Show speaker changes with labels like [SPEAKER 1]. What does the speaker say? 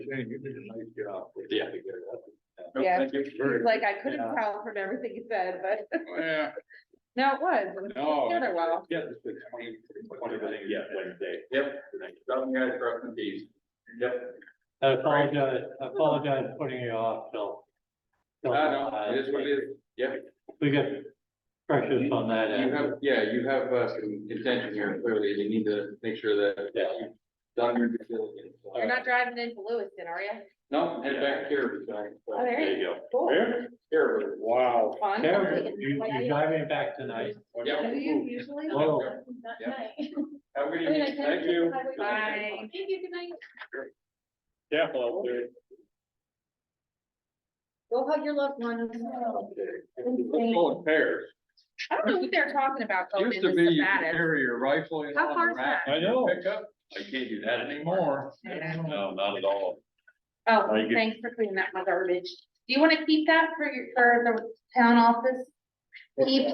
[SPEAKER 1] saying, you did a nice job.
[SPEAKER 2] Yeah.
[SPEAKER 3] No, Yeah.
[SPEAKER 2] Thank you.
[SPEAKER 1] Very
[SPEAKER 3] Like
[SPEAKER 1] good.
[SPEAKER 3] I couldn't tell from everything you said, but
[SPEAKER 1] Yeah,
[SPEAKER 3] no, it was. It was
[SPEAKER 1] no.
[SPEAKER 3] put together well.
[SPEAKER 1] Yeah, it's been twenty, twenty minutes.
[SPEAKER 2] Yeah, Wednesday.
[SPEAKER 1] Yep, some guys are up in these. Yep.
[SPEAKER 4] I apologize, I apologize for putting you off till. till,
[SPEAKER 1] No, no,
[SPEAKER 4] uh,
[SPEAKER 1] it is what it is. Yep.
[SPEAKER 4] We got pressures on that
[SPEAKER 1] You
[SPEAKER 4] end.
[SPEAKER 1] have, yeah, you have uh, some intention here clearly. You need to make sure that.
[SPEAKER 4] Yeah.
[SPEAKER 1] you've Done your due diligence.
[SPEAKER 3] You're not driving into Lewiston, are you?
[SPEAKER 1] No, head back here. sorry.
[SPEAKER 3] Oh, there
[SPEAKER 2] There
[SPEAKER 3] you
[SPEAKER 2] you go.
[SPEAKER 3] go.
[SPEAKER 1] Here? Here. Wow.
[SPEAKER 3] Fun.
[SPEAKER 4] Karen, you, you're driving back tonight.
[SPEAKER 1] Yep.
[SPEAKER 5] Do you usually?
[SPEAKER 4] Whoa.
[SPEAKER 5] Not
[SPEAKER 1] Yeah.
[SPEAKER 5] tonight.
[SPEAKER 1] Have a good
[SPEAKER 5] I mean, I
[SPEAKER 1] evening.
[SPEAKER 5] can-
[SPEAKER 1] Thank you.
[SPEAKER 5] I would-
[SPEAKER 3] Bye.
[SPEAKER 5] Thank you, good night.
[SPEAKER 2] Yeah. well, there-
[SPEAKER 5] Go hug your loved ones.
[SPEAKER 1] Full of pears.
[SPEAKER 3] I don't know what they're talking about going
[SPEAKER 1] Used to
[SPEAKER 3] into
[SPEAKER 1] be you could
[SPEAKER 3] Savannah.
[SPEAKER 1] carry your rifle and
[SPEAKER 3] How
[SPEAKER 1] all
[SPEAKER 3] far
[SPEAKER 1] the
[SPEAKER 3] is
[SPEAKER 1] rack
[SPEAKER 2] I know.
[SPEAKER 1] pickup.
[SPEAKER 2] I can't do that
[SPEAKER 1] Not
[SPEAKER 2] anymore.
[SPEAKER 1] anymore.
[SPEAKER 3] Yeah.
[SPEAKER 2] No, not at all.
[SPEAKER 3] Oh,
[SPEAKER 2] Are you good?
[SPEAKER 3] thanks for cleaning up my garbage. Do you want to keep that for your, for the town office? Keep